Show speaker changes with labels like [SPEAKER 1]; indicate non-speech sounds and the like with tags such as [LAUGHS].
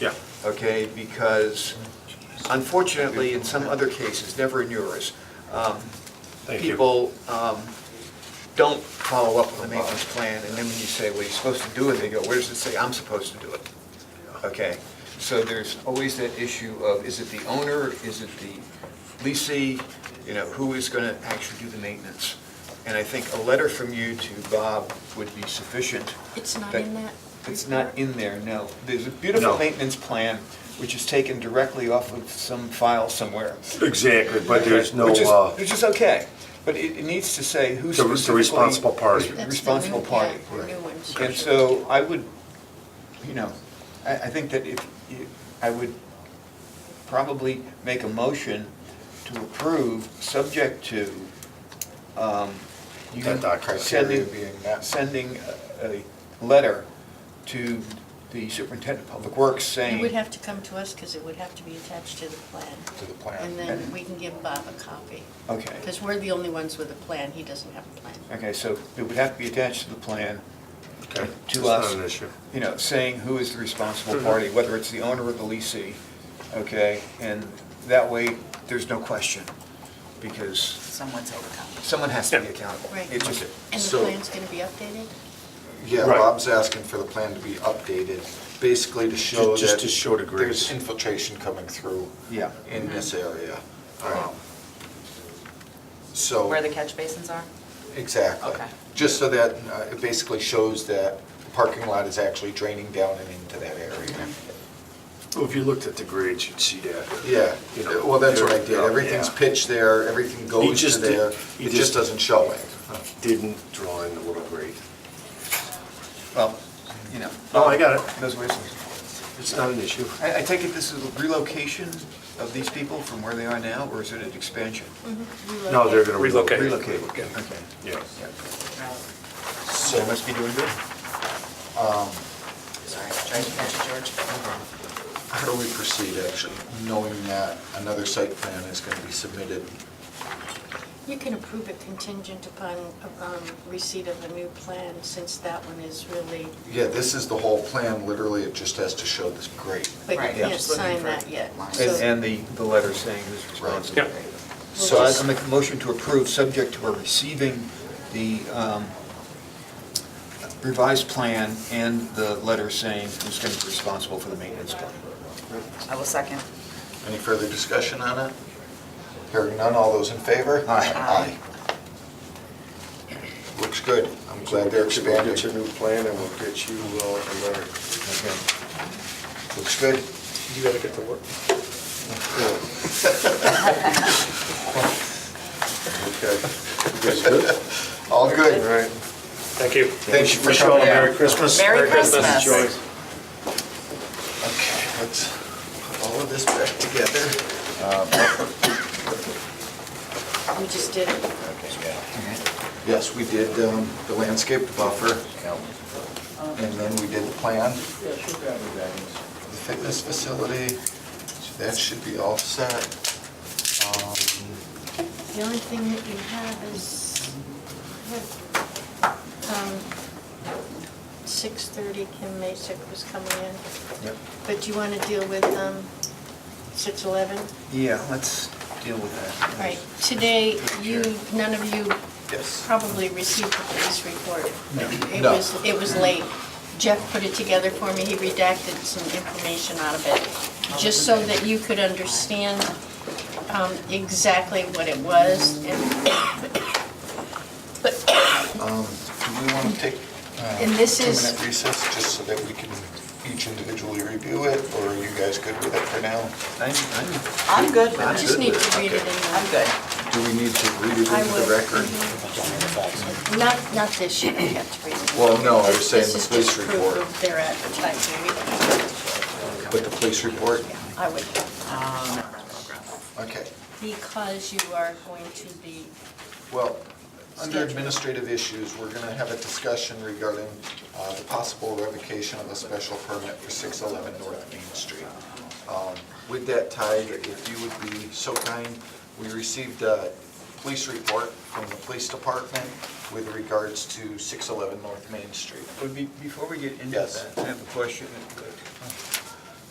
[SPEAKER 1] Yeah.
[SPEAKER 2] okay? Because unfortunately, in some other cases, never in yours, um,
[SPEAKER 1] Thank you.
[SPEAKER 2] people um, don't follow up on the maintenance plan, and then when you say, well, you're supposed to do it, they go, where does it say I'm supposed to do it? Okay, so there's always that issue of, is it the owner, is it the leasee, you know, who is going to actually do the maintenance? And I think a letter from you to Bob would be sufficient.
[SPEAKER 3] It's not in that
[SPEAKER 2] It's not
[SPEAKER 3] report?
[SPEAKER 2] in there, no. There's a
[SPEAKER 1] No.
[SPEAKER 2] beautiful maintenance plan, which is taken directly off of some file somewhere.
[SPEAKER 1] Exactly, but there's no,
[SPEAKER 2] Which is,
[SPEAKER 1] uh,
[SPEAKER 2] which is okay, but it, it needs to say who's
[SPEAKER 1] The- the
[SPEAKER 2] specifically.
[SPEAKER 1] responsible party.
[SPEAKER 2] is
[SPEAKER 1] That's
[SPEAKER 3] That's the new-
[SPEAKER 2] Responsible party.
[SPEAKER 3] yeah, the new ones.
[SPEAKER 2] And so I would, you know, I, I think that if, you- I would probably make a motion to approve, subject to, um, you
[SPEAKER 1] That document.
[SPEAKER 2] sending,
[SPEAKER 4] Criteria being met.
[SPEAKER 2] sending a, a letter to the superintendent of public works saying.
[SPEAKER 3] It would have to come to us because it would have to be attached to the plan.
[SPEAKER 4] To the plan.
[SPEAKER 3] And then we can give Bob a copy.
[SPEAKER 2] Okay.
[SPEAKER 3] Because we're the only ones with a plan. He doesn't have a plan.
[SPEAKER 2] Okay, so it would have to be attached to the plan.
[SPEAKER 1] okay, it's
[SPEAKER 2] to us.
[SPEAKER 1] not an issue.
[SPEAKER 2] you know, saying who is the
[SPEAKER 1] Mm-hmm.
[SPEAKER 2] responsible party, whether it's the owner or the leasee, okay? And that way, there's no question, because
[SPEAKER 5] Someone's overcome.
[SPEAKER 2] someone has to be accountable.
[SPEAKER 3] Right.
[SPEAKER 2] It just,
[SPEAKER 3] And the
[SPEAKER 4] So-
[SPEAKER 3] plan's going to be updated?
[SPEAKER 4] Yeah,
[SPEAKER 1] Right.
[SPEAKER 4] Bob's asking for the plan to be updated, basically to show that...
[SPEAKER 1] Ju- just to show the grades.
[SPEAKER 4] There's infiltration coming through
[SPEAKER 2] yeah.
[SPEAKER 4] in this
[SPEAKER 5] Mm-hmm.
[SPEAKER 4] area.
[SPEAKER 1] Right.
[SPEAKER 4] Um, So...
[SPEAKER 5] Where the catch basins are?
[SPEAKER 4] Exactly.
[SPEAKER 5] Okay.
[SPEAKER 4] Just so that, uh, it basically shows that the parking lot is actually draining down and into that area.
[SPEAKER 5] Mm-hmm.
[SPEAKER 1] Well, If you looked at the grades, you'd see that.
[SPEAKER 4] Yeah,
[SPEAKER 1] You know,
[SPEAKER 4] well, that's what I
[SPEAKER 1] they're-
[SPEAKER 4] did. Everything's
[SPEAKER 1] yeah.
[SPEAKER 4] pitched there, everything goes to
[SPEAKER 1] just did-
[SPEAKER 4] there.
[SPEAKER 1] he
[SPEAKER 4] It
[SPEAKER 1] just-
[SPEAKER 4] just doesn't show it.
[SPEAKER 1] Didn't draw in the little grade.
[SPEAKER 2] Well, you know.
[SPEAKER 1] Oh, I got it.
[SPEAKER 2] Those ways.
[SPEAKER 1] It's not an issue.
[SPEAKER 2] I, I take it this is a relocation of these people from where they are now, or is it an expansion?
[SPEAKER 3] Mm-hmm.
[SPEAKER 1] No, they're gonna relocate.
[SPEAKER 6] Relocate.
[SPEAKER 2] Relocate, okay.
[SPEAKER 1] Yeah.
[SPEAKER 2] Yeah.
[SPEAKER 4] So
[SPEAKER 2] They must be doing good.
[SPEAKER 5] Sorry, trying to catch you, George.
[SPEAKER 4] How do we proceed, actually, knowing that another site plan is going to be submitted?
[SPEAKER 3] You can approve it contingent upon um, receipt of a new plan, since that one is really,
[SPEAKER 4] Yeah, this is the whole plan, literally, it just has to show this grade.
[SPEAKER 3] but you
[SPEAKER 5] Right,
[SPEAKER 4] yeah.
[SPEAKER 3] can't
[SPEAKER 5] Just looking
[SPEAKER 3] sign
[SPEAKER 5] for
[SPEAKER 3] that yet.
[SPEAKER 5] lines.
[SPEAKER 3] so-
[SPEAKER 2] And, and the, the letter saying who's responsible.
[SPEAKER 6] Right.
[SPEAKER 4] So-
[SPEAKER 2] So I make a motion to approve, subject to our receiving the um, revised plan and the letter saying who's going to be responsible for the maintenance plan.
[SPEAKER 5] I will second.
[SPEAKER 4] Any further discussion on it? Hearing none, all those in favor?
[SPEAKER 2] Aye.
[SPEAKER 5] Um,
[SPEAKER 4] Aye. Looks good. I'm glad they're
[SPEAKER 1] We'll get your
[SPEAKER 4] expanding.
[SPEAKER 1] new plan and we'll get you uh, a letter.
[SPEAKER 2] Okay.
[SPEAKER 4] Looks good.
[SPEAKER 1] You gotta get to work.
[SPEAKER 4] Okay. [LAUGHS] All
[SPEAKER 1] All
[SPEAKER 4] good.
[SPEAKER 1] right.
[SPEAKER 6] Thank you.
[SPEAKER 4] Thank you for
[SPEAKER 1] Wish you all
[SPEAKER 4] coming.
[SPEAKER 1] a
[SPEAKER 4] in.
[SPEAKER 1] Merry Christmas.
[SPEAKER 5] Merry Christmas.
[SPEAKER 6] Enjoy.
[SPEAKER 4] Okay, let's put all of this back together.
[SPEAKER 3] We just did it.
[SPEAKER 4] Yes, we did um, the landscape buffer, and then we did the plan, the fitness facility, so that should be all set. Um,
[SPEAKER 3] The only thing that you have is, I have, um, 6:30, Kim Masick was coming in.
[SPEAKER 2] Yep.
[SPEAKER 3] But do you want to deal with um, 6:11?
[SPEAKER 2] Yeah, let's deal with that.
[SPEAKER 3] All right, today, you, none of you
[SPEAKER 4] Yes.
[SPEAKER 3] probably received the police report. It
[SPEAKER 4] No.
[SPEAKER 3] was, it was late. Jeff put it together for me, he redacted some information out of it, just so that you could understand um, exactly what it was and
[SPEAKER 4] Um, Do we want to take a
[SPEAKER 3] And this is-
[SPEAKER 4] two-minute recess, just so that we can each individually review it, or are you guys good with it for now?
[SPEAKER 2] I'm- I'm-
[SPEAKER 5] I'm good with
[SPEAKER 3] I
[SPEAKER 5] it.
[SPEAKER 3] just need to read it in
[SPEAKER 5] I'm
[SPEAKER 3] the,
[SPEAKER 5] good.
[SPEAKER 4] Do we need to read it
[SPEAKER 3] I
[SPEAKER 4] into
[SPEAKER 3] would. Mm-hmm.
[SPEAKER 4] the record?
[SPEAKER 3] not, not this sheet, I have to read it.
[SPEAKER 4] Well, no, I was saying
[SPEAKER 3] This
[SPEAKER 4] the
[SPEAKER 3] is
[SPEAKER 4] police
[SPEAKER 3] just proof
[SPEAKER 4] report.
[SPEAKER 3] of Their advertising,
[SPEAKER 4] But the police report?
[SPEAKER 3] I would,
[SPEAKER 5] Um,
[SPEAKER 4] Okay.
[SPEAKER 3] because you are going to be,
[SPEAKER 4] Well, under
[SPEAKER 3] Schedule.
[SPEAKER 4] administrative issues, we're going to have a discussion regarding uh, the possible revocation of a special permit for 611 North Main Street. Um, With that, Ty, if you would be so kind, we received a police report from the police department with regards to 611 North Main Street.
[SPEAKER 2] Would be- Before we get into
[SPEAKER 4] Yes.
[SPEAKER 2] that, I have a question.